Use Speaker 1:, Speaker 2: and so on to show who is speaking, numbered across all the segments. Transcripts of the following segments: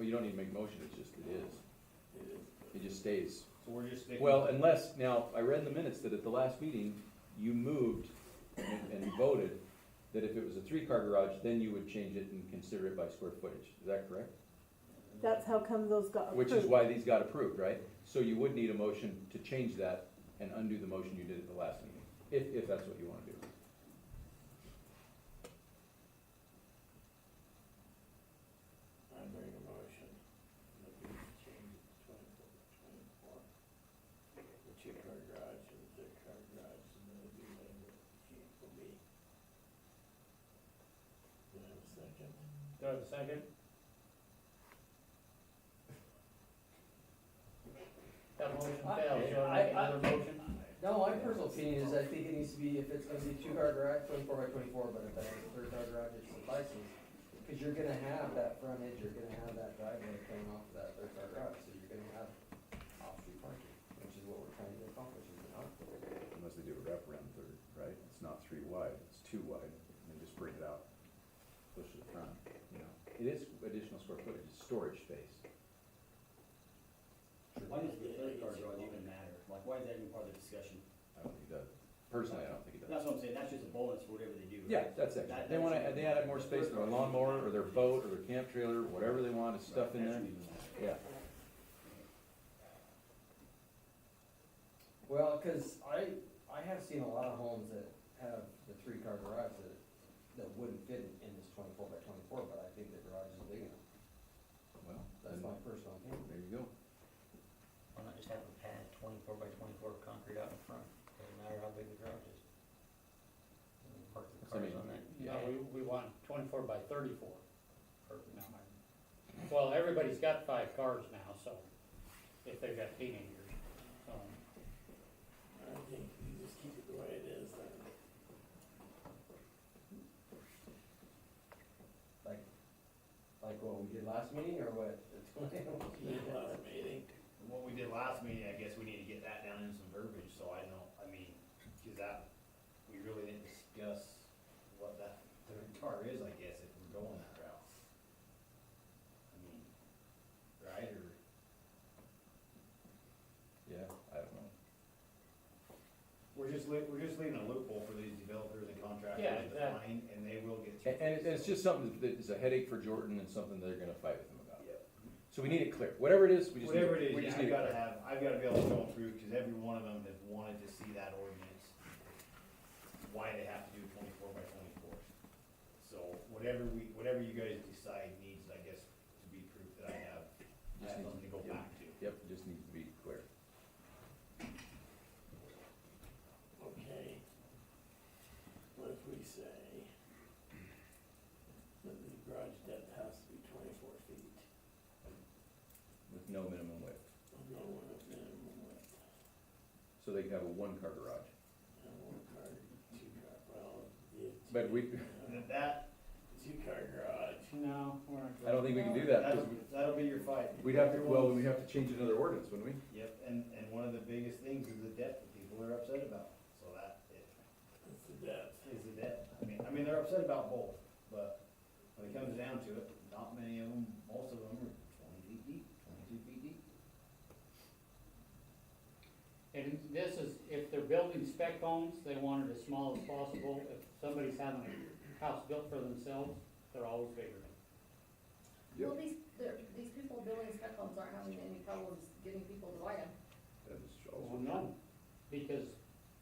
Speaker 1: you don't need to make a motion, it's just, it is.
Speaker 2: It is.
Speaker 1: It just stays.
Speaker 2: So we're just sticking.
Speaker 1: Well, unless, now, I read in the minutes that at the last meeting, you moved and and voted that if it was a three-car garage, then you would change it and consider it by square footage. Is that correct?
Speaker 3: uh,
Speaker 4: That's how come those got
Speaker 1: Which
Speaker 4: approved.
Speaker 1: is why these got approved, right? So you would need a motion to change that and undo the motion you did at the last meeting, if, if that's what you wanna do.
Speaker 2: I bring a motion. that we change it to 24 24. The two-car garage and the three-car garage, and then it'd be labeled G for B. Do I have a second?
Speaker 5: Do I have a second? That motion fails, you wanna
Speaker 3: I-
Speaker 5: make
Speaker 3: I-
Speaker 5: another motion?
Speaker 3: No, my personal opinion is I think it needs to be, if it's gonna be two car garage, twenty-four by twenty-four, but if it's a third car garage, it suffices. Cause you're gonna have that frontage, you're gonna have that driveway coming off of that third car garage, so you're gonna have off-street parking, which is what we're trying to accomplish, is it not?
Speaker 1: Unless they do a wraparound third, right? It's not three wide, it's two wide, and just bring it out, push it front, you know? It is additional square footage, it's storage space.
Speaker 6: Why does the credit card draw even matter? Like, why is that even part of the discussion?
Speaker 1: I don't think it does. Personally, I don't think it does.
Speaker 6: That's what I'm saying, that's just a bonus for whatever they do.
Speaker 1: Yeah, that's it.
Speaker 6: That-
Speaker 1: They wanna,
Speaker 6: that's-
Speaker 1: they added more space to their lawnmower, or their boat, or their camp trailer, whatever they want, is stuff in there, yeah.
Speaker 3: Well, cause I, I have seen a lot of homes that have the three car garage that, that wouldn't fit in this twenty-four by twenty-four, but I think the garage is big enough,
Speaker 1: Well,
Speaker 3: that's my personal opinion.
Speaker 1: there you go.
Speaker 7: Why not just have a pad twenty-four by twenty-four of concrete out in front, doesn't matter how big the garage is. And we Park the
Speaker 1: So,
Speaker 7: cars
Speaker 1: I mean,
Speaker 7: on that.
Speaker 5: No,
Speaker 7: pad.
Speaker 5: we, we want twenty-four by thirty-four. Or, no, I- Well, everybody's got five cars now, so, if they've got teenagers, so.
Speaker 2: I think you just keep it the way it is, then.
Speaker 3: Like, like what we did last meeting or what?
Speaker 2: Yeah, last meeting.
Speaker 8: What we did last meeting, I guess we need to get that down in some verbiage, so I don't, I mean, cause that, we really didn't discuss what that third car is, I guess, if we're going that route. I mean, right, or,
Speaker 1: Yeah, I don't know.
Speaker 8: we're just li- we're just leaving a loophole for these developers and
Speaker 5: Yeah,
Speaker 8: contractors to
Speaker 5: exactly.
Speaker 8: find, and they will get.
Speaker 1: And, and it's just something that is a headache for Jordan and something they're gonna fight with him about.
Speaker 8: Yep.
Speaker 1: So we need it clear, whatever it is, we just need
Speaker 8: Whatever it
Speaker 1: it, we
Speaker 8: is, yeah,
Speaker 1: just
Speaker 8: I've
Speaker 1: need it.
Speaker 8: gotta have, I've gotta be able to go through, cause every one of them has wanted to see that ordinance. Why they have to do twenty-four by twenty-four. So whatever we, whatever you guys decide needs, I guess, to be proof that I have, I
Speaker 1: Just
Speaker 8: have
Speaker 1: need-
Speaker 8: something to go
Speaker 1: yeah.
Speaker 8: back to.
Speaker 1: Yep, it just needs to be clear.
Speaker 2: Okay. What if we say that the garage depth has to be twenty-four feet?
Speaker 1: with no minimum width,
Speaker 2: I'm going with minimum width,
Speaker 1: so they can have a one-car garage.
Speaker 2: and one car, two car, well, yeah. two-
Speaker 1: But we,
Speaker 8: And if that,
Speaker 2: Two-car garage.
Speaker 5: No, we're not.
Speaker 1: I don't think we can do that,
Speaker 8: that'll,
Speaker 1: because
Speaker 8: that'll be your fight.
Speaker 1: we'd have to, well, we'd
Speaker 8: Everyone's-
Speaker 1: have to change another ordinance, wouldn't we?
Speaker 8: Yep, and, and one of the biggest things is the debt that people are upset about, so that, it,
Speaker 2: That's the depth.
Speaker 8: is the debt. I mean, I mean, they're upset about both, but when it comes down to it, not many of them, most of them are twenty feet deep, twenty-two feet deep.
Speaker 5: And this is, if they're building spec homes, they want it as small as possible, if somebody's having a house built for themselves, they're always bigger.
Speaker 9: Well, these, they're- these people building spec homes aren't having any problems getting people to buy them.
Speaker 1: That is
Speaker 5: Well,
Speaker 1: also true.
Speaker 5: no, because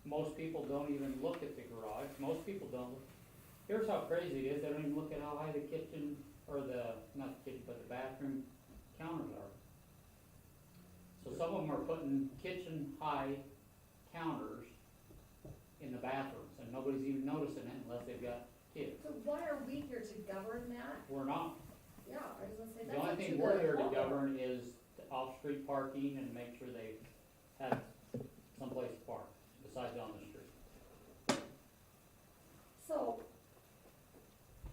Speaker 5: most people don't even look at the garage, most people don't, look- here's how crazy it is, they don't even look at how high the kitchen, or the, not the kitchen, but the bathroom counters are. So some of them are putting kitchen-high counters in the bathrooms, and nobody's even noticing it unless they've got kids.
Speaker 9: So why are we here to govern that?
Speaker 5: We're not,
Speaker 9: Yeah, I was gonna say,
Speaker 5: the
Speaker 9: that's
Speaker 5: only
Speaker 9: up to
Speaker 5: thing
Speaker 9: the
Speaker 5: we're here to
Speaker 9: owner.
Speaker 5: govern is the off-street parking and make sure they have someplace to park, besides on the street.
Speaker 9: So,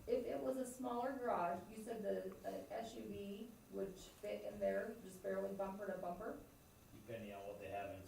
Speaker 9: if it was a smaller garage, you said the uh, SUV would fit in there, just barely bumper to bumper?
Speaker 8: Depending on what they have in